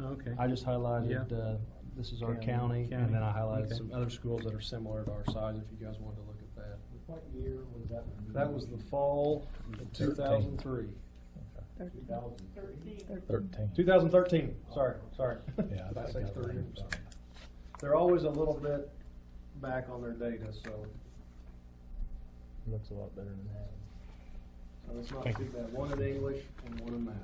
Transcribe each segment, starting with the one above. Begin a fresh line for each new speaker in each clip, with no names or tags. Okay.
I just highlighted,
Yeah.
uh, this is our
County,
county, and then I
county,
highlighted
okay.
some other schools that are similar to our size, if you guys wanted to look at that.
What year was that? renewed?
That was the fall of two thousand three,
Thirteen.
2003?
Thirteen.
two thousand thirteen, sorry, sorry.
Yeah, I
Did I say
think I
three?
remember.
Sorry. They're always a little bit back on their data, so,
Looks a lot better than that.
so it's not
Thank
too
you.
bad, one in English and one in math.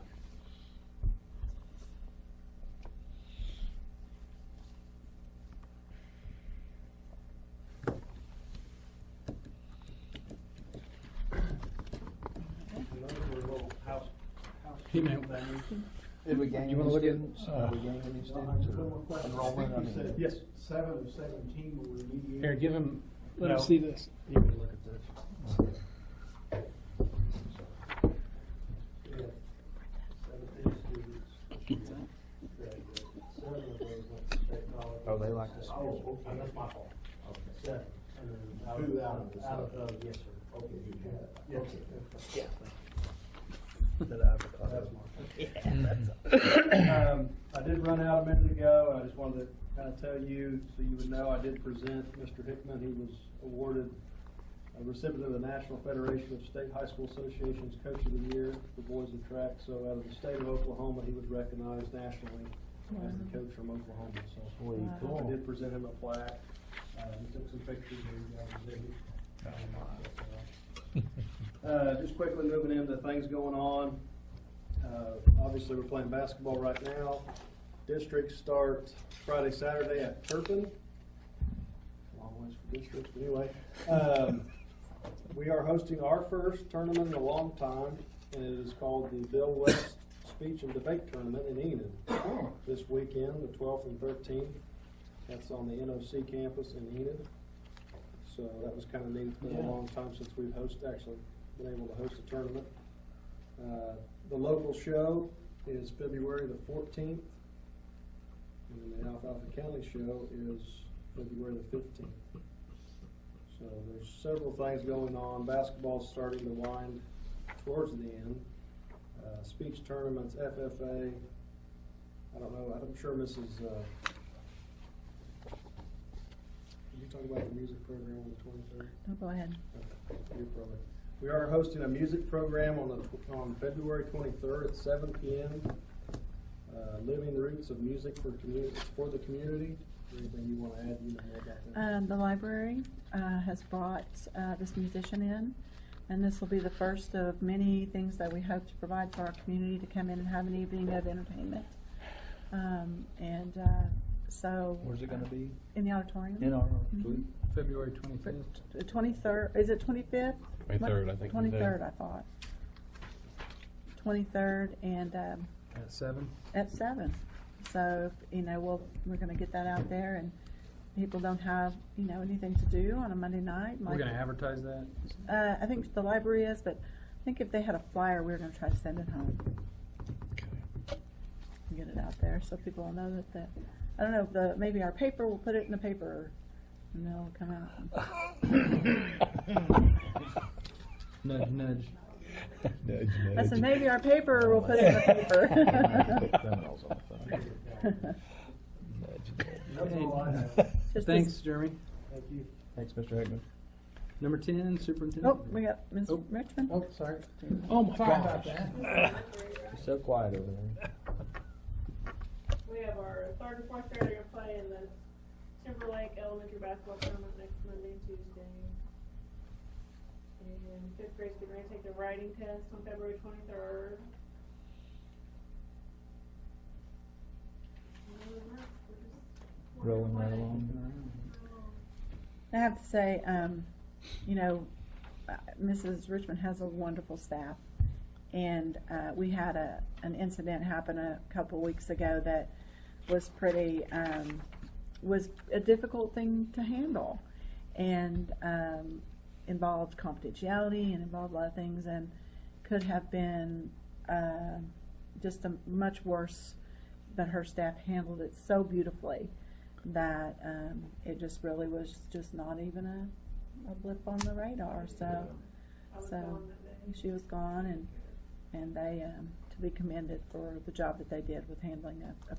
And those were little house, house.
Hey, ma'am.
things.
Did we gain
You wanna
any
look at-
students? Did we gain any
No, I
students?
just one more
or
question. I
enrollment? I
think you
mean,
said
Yes.
Seven of seventeen were remediated.
Here, give him, let
No.
him see this.
You can look at this.
Yeah. Seventeen students. Graduated. Seven of those went to state college.
Oh, they like this.
Oh, okay, that's my fault. Seven. And then
Two out of the
Out of those, yes, sir. Okay. Yes, sir. That's my fault.
Um, I did run out a minute ago, and I just wanted to kind of tell you, so you would know, I did present Mr. Hickman. He was awarded a recipient of the National Federation of State High School Associations Coach of the Year for Boys in Track. So out of the state of Oklahoma, he was recognized nationally as the coach from Oklahoma. So
Sweet.
I did present him a plaque. Uh, we took some pictures of the exhibit. Uh, just quickly moving into things going on. Uh, obviously, we're playing basketball right now. Districts start Friday, Saturday at Turpin. Long ways for districts, but anyway. Um, we are hosting our first tournament in a long time, and it is called the Bill West Speech and Debate Tournament in Enid. This weekend, the twelfth and thirteenth. That's on the NOC campus in Enid. So that was kind of neat. It's been a
Yeah.
long time since we've hosted, actually been able to host a tournament. Uh, The local show is February the fourteenth. And then the Alfalfa County show is February the fifteenth. So there's several things going on. Basketball's starting to wind towards the end. Uh, speech tournaments, FFA. I don't know, I'm sure Mrs., uh, did you talk about the music program on the twenty-third?
No, Oh, go ahead.
Your program. We are hosting a music program on the, tw- on February twenty-third at seven P M. Uh, living the roots of music for community, for the community. Anything you wanna add, you know more about that?
Um, the library, uh, has brought, uh, this musician in, and this will be the first of many things that we hope to provide for our community to come in and have an evening of entertainment. Um, and, uh, so. uh,
Where's it gonna be?
In the auditorium.
In our,
Mhm.
February
For-
twenty-fifth.
The twenty-third, is it twenty-fifth?
23rd, I think we did.
Twenty-third, I thought. Twenty-third and, um,
At seven?
at seven. So, you know, we'll, we're gonna get that out there and people don't have, you know, anything to do on a Monday night.
We're
like-
gonna advertise that?
Uh, I think the library is, but I think if they had a flyer, we were gonna try to send it home and get it out there so people will know that the, I don't know, if the, maybe our paper, we'll put it in the paper and they'll come out.
Nudge, nudge.
Nudge,
I said,
nudge.
maybe our paper, we'll put it in the
Put
paper.
thumbnails on the thing. Nudge, nudge.
That's all I have.
Just
Thanks,
as-
Jeremy.
Thank you.
Thanks, Mr. Hickman.
Number ten,
Oh,
superintendent.
we got Ms.
Oh.
Richmond.
Oh, sorry.
Oh, my
Sorry
gosh.
about You're so quiet over there.
We have our third and fourth grader gonna play in the Timberlake Elementary Basketball Tournament next Monday and Tuesday. And fifth grade's getting ready to take their writing test on February twenty-third.
Rolling right along.
I have to say, um, you know, uh, Mrs. Richmond has a wonderful staff. And, uh, we had a, an incident happen a couple weeks ago that was pretty, um, was a difficult thing to handle. And, um, involved confidentiality and involved a lot of things and could have been, uh, just a much worse, but her staff handled it so beautifully that um, it just really was just not even a, a blip on the radar. So
I was
So-
gone that day.
she was gone, and and they um, to be commended for the job that they did with handling a a